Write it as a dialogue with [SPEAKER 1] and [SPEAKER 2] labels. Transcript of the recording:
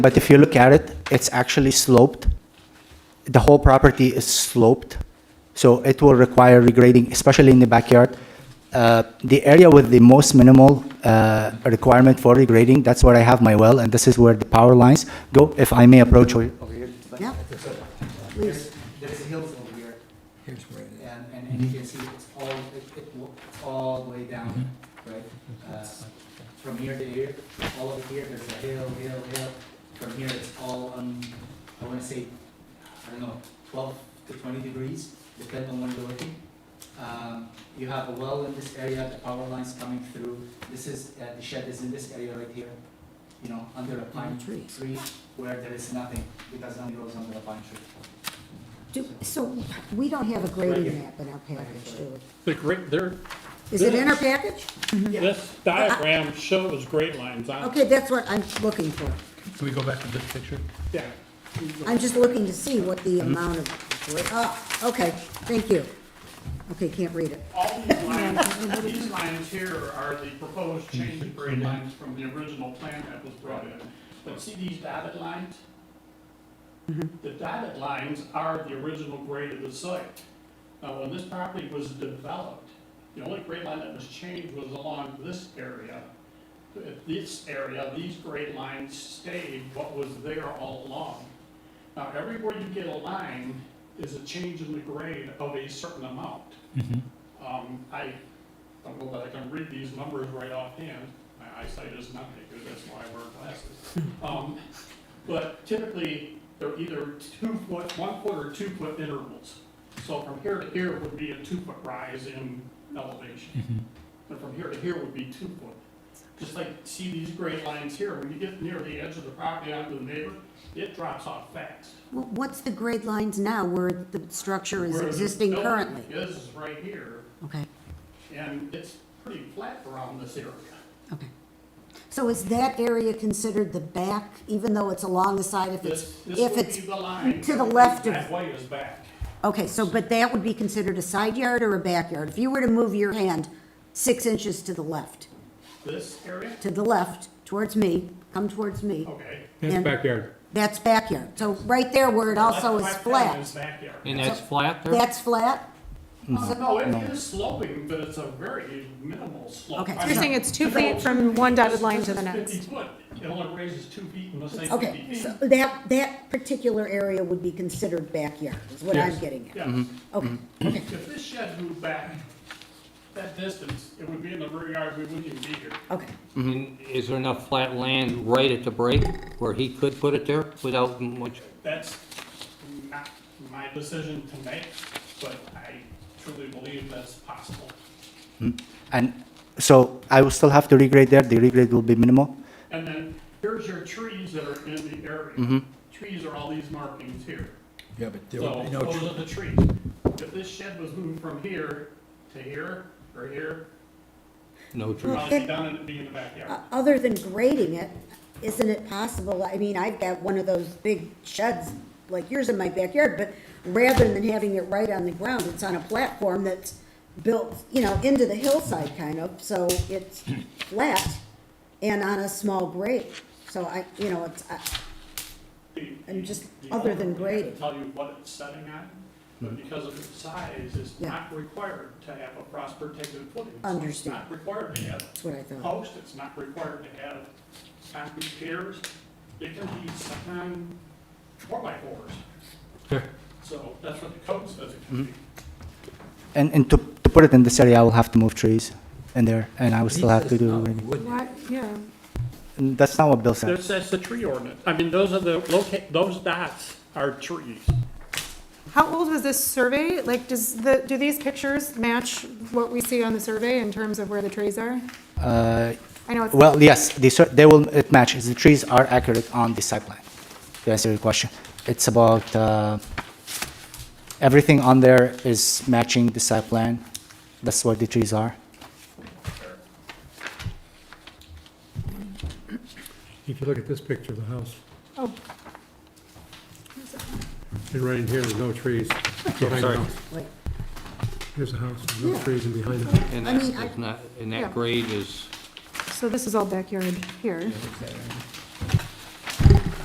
[SPEAKER 1] But if you look at it, it's actually sloped. The whole property is sloped, so it will require regrading, especially in the backyard. Uh, The area with the most minimal uh, requirement for regrading, that's where I have my well, and this is where the power lines go, if I may approach over over here.
[SPEAKER 2] Yeah.
[SPEAKER 1] There's there's hills over here,
[SPEAKER 3] Here's where it
[SPEAKER 1] and- and and you can see it's all, it- it wa- it's all the way down,
[SPEAKER 3] Mm-hmm.
[SPEAKER 1] right? Uh, From here to here, all over here, there's a hill, hill, hill. From here, it's all, um, I wanna say, I don't know, twelve to twenty degrees, depending on when you're looking. Um, you have a well in this area, the power line's coming through. This is, uh, the shed is in this area right here, you know, under a pine
[SPEAKER 2] Trees.
[SPEAKER 1] tree where there is nothing, because nothing grows under a pine tree.
[SPEAKER 2] Do- So we don't have a grading map in our package, do
[SPEAKER 4] The great, there,
[SPEAKER 2] we? Is it in our package?
[SPEAKER 4] this diagram shows great lines on,
[SPEAKER 2] Okay, that's what I'm looking for.
[SPEAKER 3] is. Can we go back to this picture?
[SPEAKER 4] yeah.
[SPEAKER 2] I'm just looking to see what the
[SPEAKER 4] Mm-hmm.
[SPEAKER 2] amount of, gra- oh, okay, thank you. Okay, can't read it.
[SPEAKER 4] All these lines, these lines here are the proposed change of grade lines from the original plan that was brought in. But see these dotted lines? The dotted lines are the original grade of the site. Now, when this property was developed, the only grade line that was changed was along this area. If This area, these grade lines stayed what was there all along. Now, everywhere you get a line is a change in the grade of a certain amount. Um, I don't know that I can read these numbers right offhand, my eyesight is not very good, that's why I wear glasses. Um, but typically, they're either two foot, one foot or two foot intervals. So from here to here would be a two foot rise in elevation. And from here to here would be two foot. Just like, see these gray lines here, when you get near the edge of the property onto the neighbor, it drops off fast.
[SPEAKER 2] Well, What's the grade lines now where the structure is
[SPEAKER 4] Whereas this
[SPEAKER 2] existing
[SPEAKER 4] building
[SPEAKER 2] currently?
[SPEAKER 4] Is right here,
[SPEAKER 2] Okay,
[SPEAKER 4] and it's pretty flat around this area.
[SPEAKER 2] okay. So is that area considered the back, even though it's along the side if it's,
[SPEAKER 4] This, this
[SPEAKER 2] if
[SPEAKER 4] would be
[SPEAKER 2] it's,
[SPEAKER 4] the line.
[SPEAKER 2] to the left of-
[SPEAKER 4] That way is back.
[SPEAKER 2] okay, so, but that would be considered a side yard or a backyard? If you were to move your hand six inches to the left,
[SPEAKER 4] This area,
[SPEAKER 2] to the left, towards me, come towards me,
[SPEAKER 4] okay.
[SPEAKER 2] And-
[SPEAKER 5] That's backyard.
[SPEAKER 2] that's backyard. So right there where it also is
[SPEAKER 4] Left- left down is
[SPEAKER 2] flat,
[SPEAKER 4] backyard.
[SPEAKER 5] And that's flat there?
[SPEAKER 2] that's flat? Oh.
[SPEAKER 4] Uh, No, it is sloping, but it's a very minimal slope.
[SPEAKER 2] Okay.
[SPEAKER 4] I
[SPEAKER 2] You're
[SPEAKER 4] mean,
[SPEAKER 6] saying it's two
[SPEAKER 4] no,
[SPEAKER 6] feet from one
[SPEAKER 4] this-
[SPEAKER 6] dotted line
[SPEAKER 4] this
[SPEAKER 6] to the
[SPEAKER 4] is
[SPEAKER 6] next.
[SPEAKER 4] Fifty foot, it only raises two feet in the same fifty
[SPEAKER 2] Okay,
[SPEAKER 4] feet.
[SPEAKER 2] so that, that particular area would be considered backyard, is what I'm
[SPEAKER 4] Yes.
[SPEAKER 2] getting at.
[SPEAKER 4] Yeah,
[SPEAKER 2] Okay, okay,
[SPEAKER 4] if this shed moved back that distance, it would be in the rear yard, we wouldn't even be here.
[SPEAKER 2] okay.
[SPEAKER 5] And is there enough flat land right at the break where he could put it there without much?
[SPEAKER 4] That's not my decision to make, but I truly believe that's possible.
[SPEAKER 1] And so I will still have to regrade there, the regrade will be minimal.
[SPEAKER 4] And then here's your trees that are in the area. Trees are all these markings here.
[SPEAKER 3] Yeah, but there
[SPEAKER 4] So
[SPEAKER 3] would be no,
[SPEAKER 4] those
[SPEAKER 3] tr-
[SPEAKER 4] are the trees. If this shed was moved from here to here or here,
[SPEAKER 5] No
[SPEAKER 4] it'd
[SPEAKER 5] trees.
[SPEAKER 4] probably be done and it'd be in the backyard.
[SPEAKER 2] O- Uh, Other than grading it, isn't it possible, I mean, I've got one of those big sheds like yours in my backyard, but rather than having it right on the ground, it's on a platform that's built, you know, into the hillside kind of, so it's flat and on a small grade. So I, you know, it's, I-
[SPEAKER 4] The-
[SPEAKER 2] and just
[SPEAKER 4] the
[SPEAKER 2] other than
[SPEAKER 4] owner would have to
[SPEAKER 2] grading.
[SPEAKER 4] Tell you what it's setting on, but because of its size, it's
[SPEAKER 2] Yeah.
[SPEAKER 4] not required to have a cross protected footing. It's
[SPEAKER 2] Understand.
[SPEAKER 4] not required to have
[SPEAKER 2] that's what I thought.
[SPEAKER 4] post, it's not required to have concrete piers. It can be sometimes four by fours. So that's what the code says it can be.
[SPEAKER 1] And, and to, to put it in this area, I will have to move trees in there, and I will still have to do, regrading.
[SPEAKER 6] Why, yeah.
[SPEAKER 1] And that's not what Bill said.
[SPEAKER 4] That's, that's the tree ordinance. I mean, those are the, loca- those dots are trees.
[SPEAKER 6] How old was this survey? Like, does the, do these pictures match what we see on the survey in terms of where the trees are?
[SPEAKER 1] Uh,
[SPEAKER 6] I know it's,
[SPEAKER 1] Well, yes, they, cer- they will, it matches, the trees are accurate on the site plan, to answer your question. It's about, uh, everything on there is matching the site plan, that's what the trees are.
[SPEAKER 7] If you look at this picture of the house,
[SPEAKER 6] oh,
[SPEAKER 7] and right in here, there's no trees behind the house.
[SPEAKER 2] Wait.
[SPEAKER 7] Here's the house, there's no
[SPEAKER 2] Yeah.
[SPEAKER 7] trees and behind it.
[SPEAKER 5] And
[SPEAKER 2] I mean,
[SPEAKER 5] that
[SPEAKER 2] I-
[SPEAKER 5] is not, and
[SPEAKER 6] Yeah.
[SPEAKER 5] that grade is,
[SPEAKER 6] so this is all backyard here.